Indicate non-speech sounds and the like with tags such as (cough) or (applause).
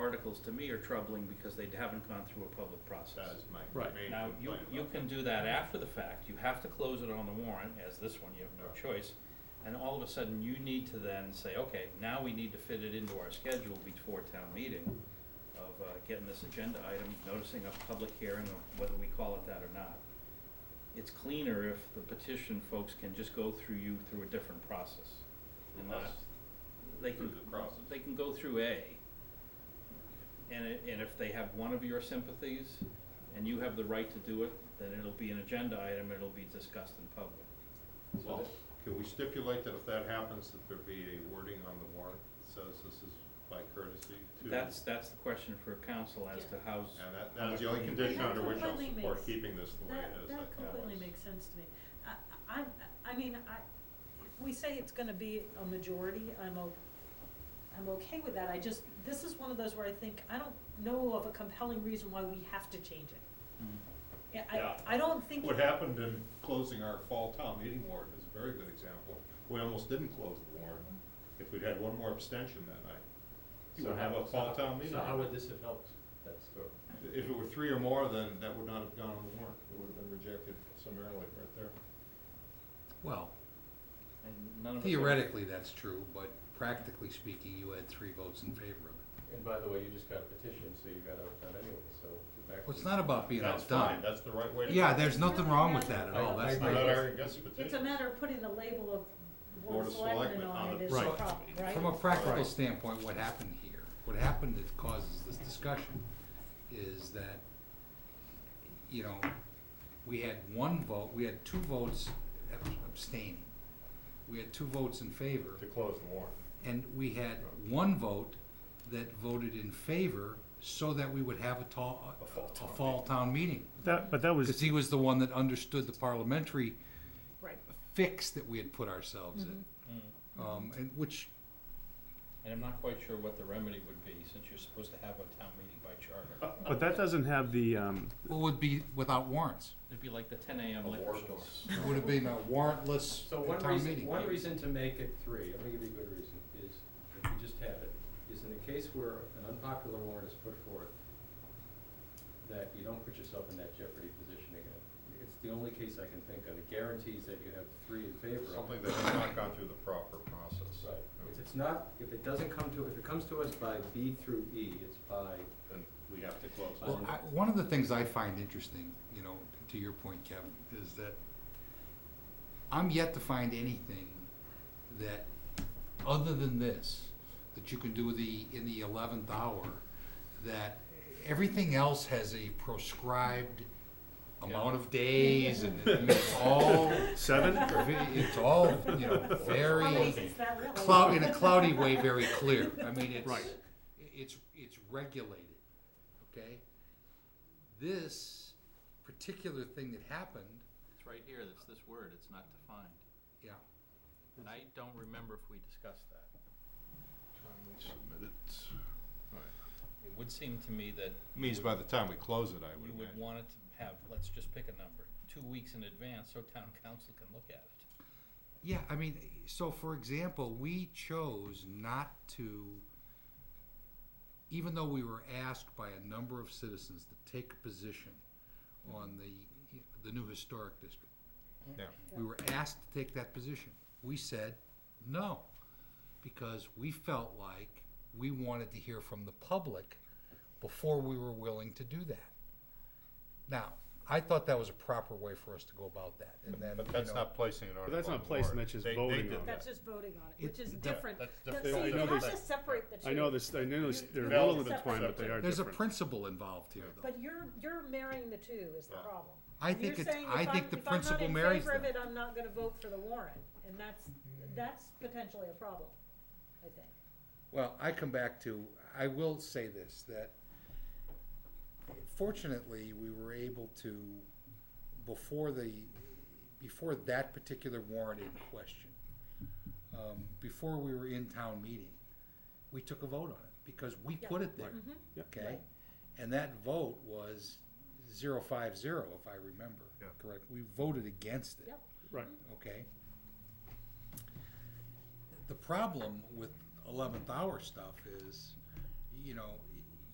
articles to me are troubling because they haven't gone through a public That process. is my Right. main Now, you, complaint you about can do that after the fact, you have to close it on the warrant, as this one, you have no choice. And all of a sudden, you need to then say, okay, now we need to fit it into our schedule before town meeting of uh, getting this agenda item, noticing a public hearing, or whether we call it that or not. It's cleaner if the petition folks can just go through you through a different process. that. Unless they can, Through the process. they can go through A. And it, and if they have one of your sympathies and you have the right to do it, then it'll be an agenda item, it'll be discussed in public. Well, can we stipulate that if that happens, that there be a wording on the warrant that says this is by courtesy to? That's, that's the question for council as to how's, And that, that is the only condition That under which I'll completely support makes- keeping this the way That, it is. I that think completely that's- makes sense to me. I, I, I mean, I, if we say it's gonna be a majority, I'm o- I'm okay with that, I just, this is one of those where I think, I don't know of a compelling reason why we have to change it. Mm. Yeah, Yeah. I, I don't think, What happened in closing our fall town meeting warrant is a very good example. We almost didn't close the warrant. If we'd had one more abstention that night, you would have a fall town meeting. So how would this have helped that story? If it were three or more, then that would not have gone on the warrant. It would have been rejected summarily right there. Well, and none of us. theoretically, that's true, but practically speaking, you had three votes in favor of it. And by the way, you just got a petition, so you got outdone anyway, so you're back. Well, it's not about being That's fine. outdone. That's the right way to. Yeah, there's nothing wrong with that at all, I- that's Not not, our guess it's a petition. matter of putting the label of Board of Board of Selectmen Selectmen on on it the- is the Right. problem, right? from a practical Right. standpoint, what happened here, what happened that causes this discussion is that, you know, we had one vote, we had two votes abstaining. We had two votes in favor. To close the warrant. And we had one vote that voted in favor so that we would have a tall, A fall a town fall town meeting. That, but that Because was, he was the one that understood the parliamentary Right. fix that we had put ourselves in. Mm. Um, and which, And I'm not quite sure what the remedy would be, since you're supposed to have a town meeting by Uh, charter. but that doesn't have the, um, what would be without warrants, It'd be like the ten AM liquor Abortion. store. it would have been a warrantless So one town reason, meeting. one reason to make it three, I'm gonna give you a good reason, is, if you just have it, is in the case where an unpopular warrant is put forth, that you don't put yourself in that jeopardy position again. It's the only case I can think of, it guarantees that you have three in favor of it. Something that has not gone through the proper process. Right, if it's not, if it doesn't come to, if it comes to us by B through E, it's by, Then we have to close it. Well, I, one of the things I find interesting, you know, to your point, Kevin, is that I'm yet to find anything that, other than this, that you can do the, in the eleventh hour, that everything else has a proscribed amount of days and it's all, seven? it's all, you know, very How many is that really? cloud, in a cloudy way, very clear. I mean, it's, Right. it's, it's regulated, okay? This particular thing that happened, (laughs) It's right here, that's this word, it's not defined. yeah, And I don't remember if we discussed that. It would seem to me that Means by the time we close it, I would you would imagine. want it to have, let's just pick a number, two weeks in advance so town council can look at it. yeah, I mean, so for example, we chose not to, even though we were asked by a number of citizens to take a position on the, the new historic district. Yeah. We were asked to take that position. We said no, because we felt like we wanted to hear from the public before we were willing to do that. Now, I thought that was a proper way for us to go about that, and then, But you that's know, not placing an article that's on not the placing, warrant. that's just They- they voting did that. on That's just voting on it, It- which is that- different. that's Now, different. I See, you know have that- to separate the two. I know this, I know this, they're all intertwined, but they are there's a different. principle involved here, though. But you're, you're marrying the two is the Yeah. problem. I You're think it's- saying I if think I'm- the if I'm not principle in marries favor of them. it, I'm not gonna vote for the warrant, and that's, that's potentially a problem, I think. Well, I come back to, I will say this, that fortunately, we were able to, before the, before that particular warrant in question, um, before we were in town meeting, we took a vote on it, because we put it there, Yeah. okay? And that vote was zero five zero, if I remember Yeah. correct, we voted against it Yep. Right, okay? The problem with eleventh hour stuff is, you know,